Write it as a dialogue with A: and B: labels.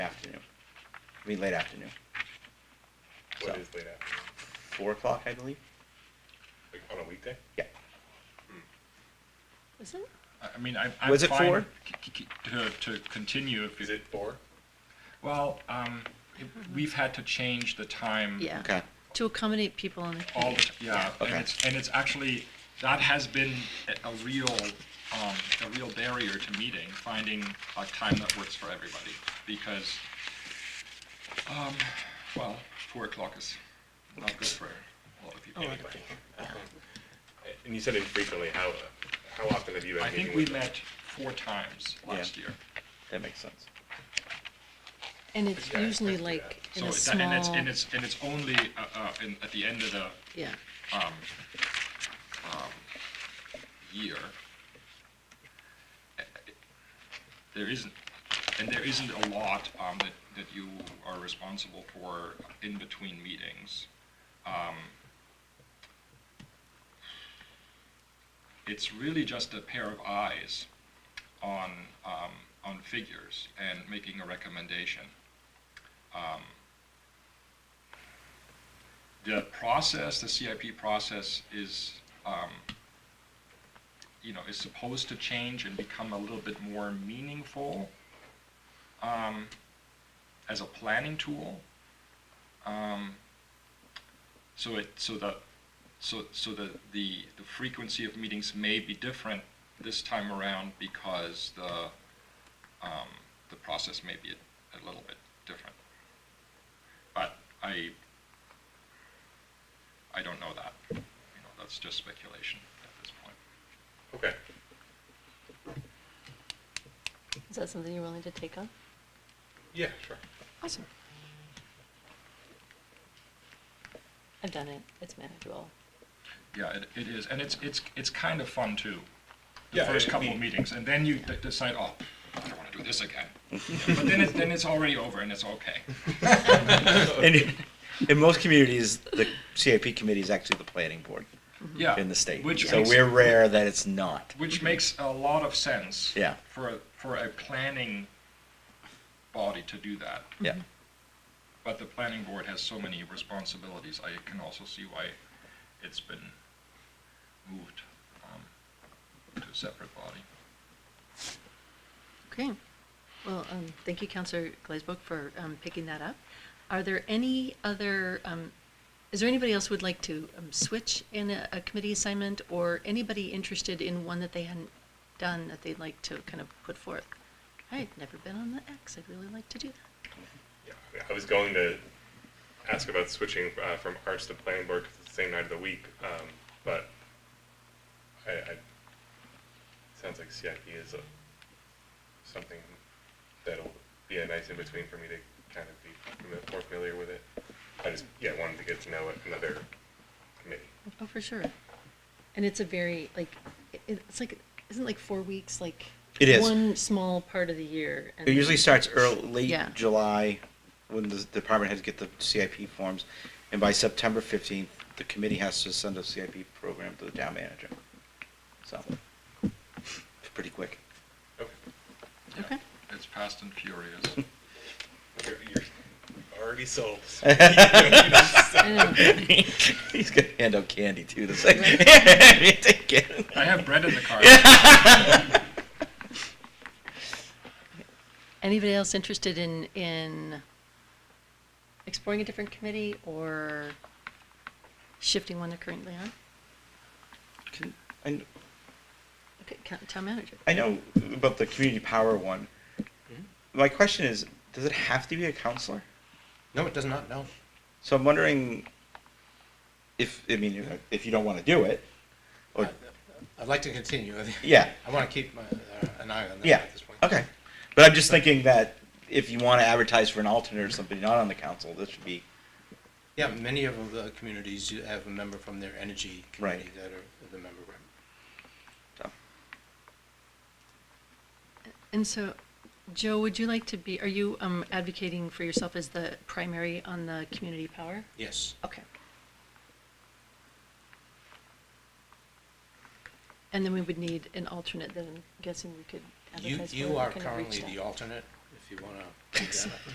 A: I mean, late afternoon,
B: What
A: So.
B: is late afternoon?
A: four o'clock, I believe.
B: Like on a weekday?
A: Yeah.
C: Is it?
D: I I mean, I, I'm
A: Was it
D: fine
A: four?
D: c- c- c- To, to continue if
B: Is
D: you,
B: it four?
D: well, um, it- we've had to change the time.
C: Yeah.
A: Okay.
C: To accommodate people on the
D: All, the
C: committee.
D: t- yeah, and
A: Okay.
D: it's, and it's actually, that has been a- a real, um, a real barrier to meeting, finding a time that works for everybody, because, um, well, four o'clock is not good for a lot of people.
B: Anyway. And you said infrequently, how, how often have you been
D: I
B: meeting
D: think we
B: with them?
D: met four times last year.
A: That makes sense.
C: And it's
B: Yeah, I
C: usually
B: can do that.
C: like in
D: So
C: a
D: it- And it's,
C: small,
D: and it's, and it's only, uh, uh, in, at the end of the
C: yeah.
D: um, year, eh, there isn't, and there isn't a lot um, that, that you are responsible for in between meetings. Um, It's really just a pair of eyes on, um, on figures and making a recommendation. Um, The process, the CIP process is, um, you know, is supposed to change and become a little bit more meaningful um, as a planning tool. Um, so it so the so so the, the the frequency of meetings may be different this time around because the um, the process may be a, a little bit different. But I I don't know that. You know, that's just speculation at this point.
B: Okay.
C: Is that something you're willing to take on?
B: Yeah, sure.
C: Awesome. I've done it. It's manageable.
D: Yeah, it, it is, and it's, it's, it's kind of fun too. The
B: Yeah,
D: first
B: it-
D: couple of
B: we-
D: meetings, and then you d- decide, oh, I don't want to do this again. But then it, then it's already over and it's okay.
A: And in- in most communities, the CIP committee is actually the planning board
D: Yeah.
A: in the state.
D: Which
A: So
D: makes-
A: we're rare that it's not.
D: Which makes a lot of sense.
A: Yeah.
D: For, a- for a planning body to do that.
A: Yeah.
D: But the planning board has so many responsibilities, I can also see why it's been moved, um, to a separate body.
C: Okay. Well, um, thank you, Counselor Glazebrook, for um, picking that up. Are there any other, um, is there anybody else who would like to um, switch in a, a committee assignment or anybody interested in one that they hadn't done that they'd like to kind of put forth? I've never been on the X. I'd really like to do that.
B: Yeah, I was going to ask about switching uh, from arts to planning board 'cause it's the same night of the week, um, but I, I, sounds like CIP is a, something that'll be a nice in between for me to kind of be fami- more familiar with it. I just, yeah, wanted to get to know another committee.
C: Oh, for sure. And it's a very, like, it, it's like, isn't like four weeks, like
A: It is.
C: one small part of the year. and
A: It usually
C: then-
A: starts early, late
C: Yeah.
A: July, when the department heads get the CIP forms, and by September fifteenth, the committee has to send a CIP program to the town manager. So, it's pretty quick.
B: Okay.
D: Yeah.
C: Okay.
D: It's fast and furious.
B: You're, you're already sold.
C: I know.
A: He's gonna hand out candy too, the second. Take it.
D: I have bread in the car.
C: Anybody else interested in, in exploring a different committee or shifting one they're currently on?
A: Can- I-
C: Okay, ca- town manager.
A: I know about the community power one.
E: Hmm?
A: My question is, does it have to be a counselor?
E: No, it does not. No.
A: So I'm wondering if, I mean, if- if you don't want to do it, or,
E: I'd like to continue.
A: Oh. yeah,
E: I want to keep my, uh, an eye on that
A: yeah,
E: at this point.
A: okay. But I'm just thinking that if you want to advertise for an alternate or something not on the council, this should be,
E: Yeah, many of the communities you have a member from their energy committee
A: Right.
E: that are the member. rep.
A: so.
C: And so, Joe, would you like to be, are you um, advocating for yourself as the primary on the community power?
E: Yes.
C: Okay. And then we would need an alternate, then I'm guessing we could
E: You,
C: advertise for.
E: you are
C: kind of reach
E: currently
C: that.
E: the alternate, if you want to.